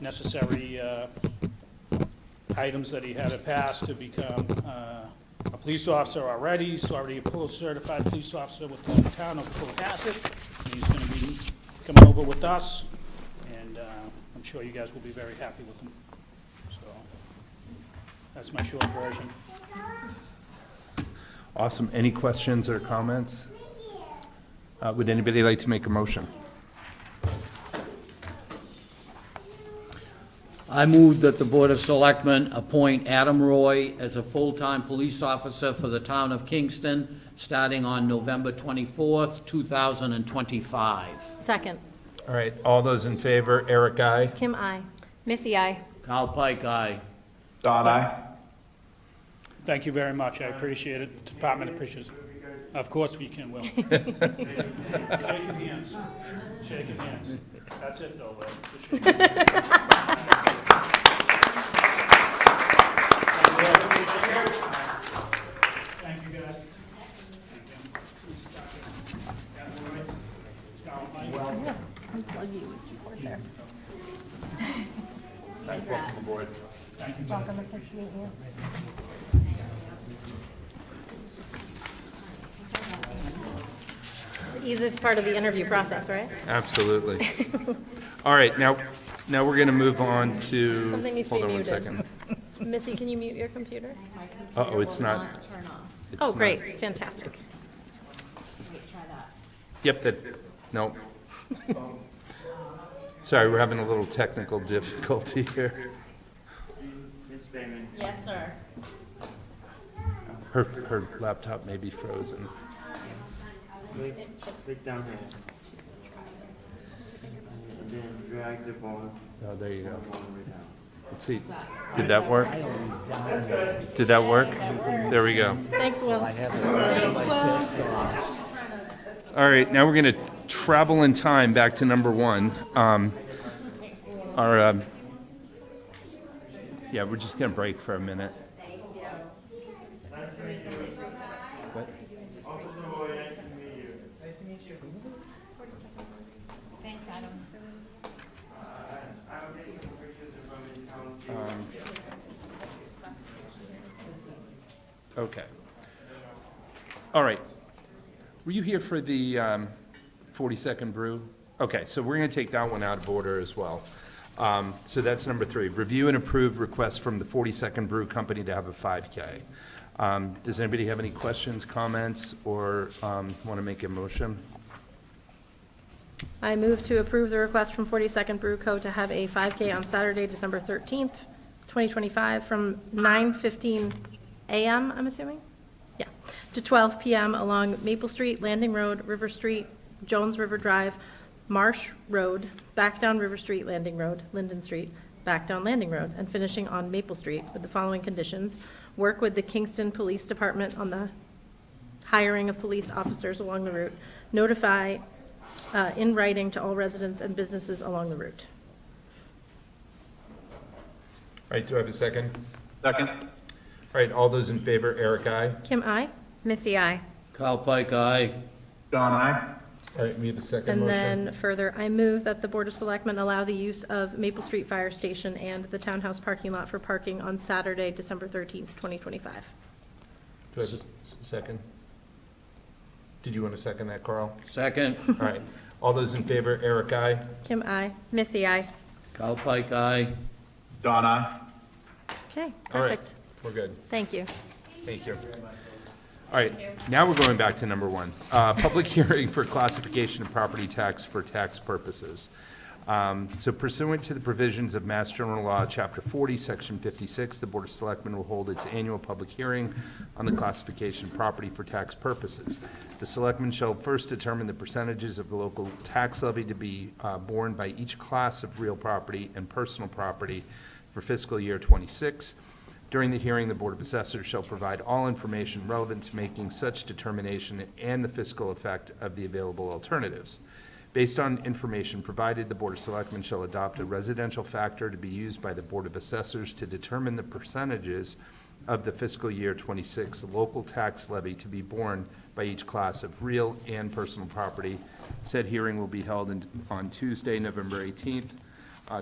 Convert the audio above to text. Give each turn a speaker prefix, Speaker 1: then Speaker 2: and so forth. Speaker 1: necessary uh, items that he had to pass to become uh, a police officer already. He's already a post-certified police officer with the town of Cohasset. And He's going to be coming over with us, and uh, I'm sure you guys will be very happy with him. So that's my short version.
Speaker 2: Awesome. Any questions or comments? Uh, Would anybody like to make a motion?
Speaker 3: I move that the Board of Selectmen appoint Adam Roy as a full-time police officer for the town of Kingston, starting on November twenty-fourth, two thousand and twenty-five.
Speaker 4: Second.
Speaker 2: All right, all those in favor, Eric, I.
Speaker 4: Kim, I.
Speaker 5: Missy, I.
Speaker 3: Kyle Pike, aye.
Speaker 6: Dot I.
Speaker 1: Thank you very much, I appreciate it, department appreciates it. Of course we can, Will. Shaking hands, shaking hands. That's it, though, Will. Just shaking hands. Thank you, guys.
Speaker 4: Welcome, it's nice to meet you.
Speaker 5: It's the easiest part of the interview process, right?
Speaker 2: Absolutely. All right, now, now we're going to move on to.
Speaker 5: Something needs to be muted.
Speaker 2: Hold on one second.
Speaker 5: Missy, can you mute your computer?
Speaker 2: Uh-oh, it's not. it's
Speaker 5: Oh,
Speaker 2: not-
Speaker 5: great, fantastic.
Speaker 2: Yep, that, no. Sorry, we're having a little technical difficulty here.
Speaker 4: Yes, sir.
Speaker 2: Her, her laptop may be frozen.
Speaker 7: Click, click down here. And then drag the bone,
Speaker 2: Oh, there you go.
Speaker 7: all the way down.
Speaker 2: Let's see, did that work? Did that work? There we go.
Speaker 4: Thanks, Will.
Speaker 2: All right, now we're going to travel in time back to number one. Um, Our, um, yeah, we're just going to break for a minute. What? Um, Okay. All right. Were you here for the um, 42nd Brew? Okay, so we're going to take that one out of order as well. Um, So that's number three. Review and approve request from the 42nd Brew Company to have a 5K. Um, Does anybody have any questions, comments, or want to make a motion?
Speaker 4: I move to approve the request from 42nd Brew Co. to have a 5K on Saturday, December 13th, 2025, from 9:15 a.m., I'm assuming? Yeah, to 12 p.m. along Maple Street, Landing Road, River Street, Jones River Drive, Marsh Road, back down River Street, Landing Road, Linden Street, back down Landing Road, and finishing on Maple Street with the following conditions. Work with the Kingston Police Department on the hiring of police officers along the route. Notify uh, in writing to all residents and businesses along the route.
Speaker 2: All right, do I have a second? Second. All right, all those in favor, Eric, aye.
Speaker 4: Kim, I.
Speaker 5: Missy, I.
Speaker 3: Kyle Pike, aye.
Speaker 2: All right, we have a second
Speaker 4: And
Speaker 2: motion.
Speaker 4: then further, I move that the Board of Selectmen allow the use of Maple Street Fire Station and the Townhouse parking lot for parking on Saturday, December 13th, 2025.
Speaker 2: Do I have a s- second? Did you want to second that, Carl?
Speaker 3: Second,
Speaker 2: All right, all those in favor, Eric, aye.
Speaker 4: Kim, I.
Speaker 5: Missy, I.
Speaker 3: Kyle Pike, aye.
Speaker 6: Dot I.
Speaker 4: Okay,
Speaker 2: All right.
Speaker 4: perfect.
Speaker 2: We're good.
Speaker 4: Thank you.
Speaker 2: Thank you. All right, now we're going back to number one. Uh, Public hearing for classification of property tax for tax purposes. Um, So pursuant to the provisions of Mass General Law, Chapter 40, Section 56, the Board of Selectmen will hold its annual public hearing on the classification of property for tax purposes. The selectmen shall first determine the percentages of the local tax levy to be uh, borne by each class of real property and personal property for fiscal year '26. During the hearing, the Board of Assessors shall provide all information relevant to making such determination and the fiscal effect of the available alternatives. Based on information provided, the Board of Selectmen shall adopt a residential factor to be used by the Board of Assessors to determine the percentages of the fiscal year 26 local tax levy to be borne by each class of real and personal property. Said hearing will be held in- on Tuesday, November 18th,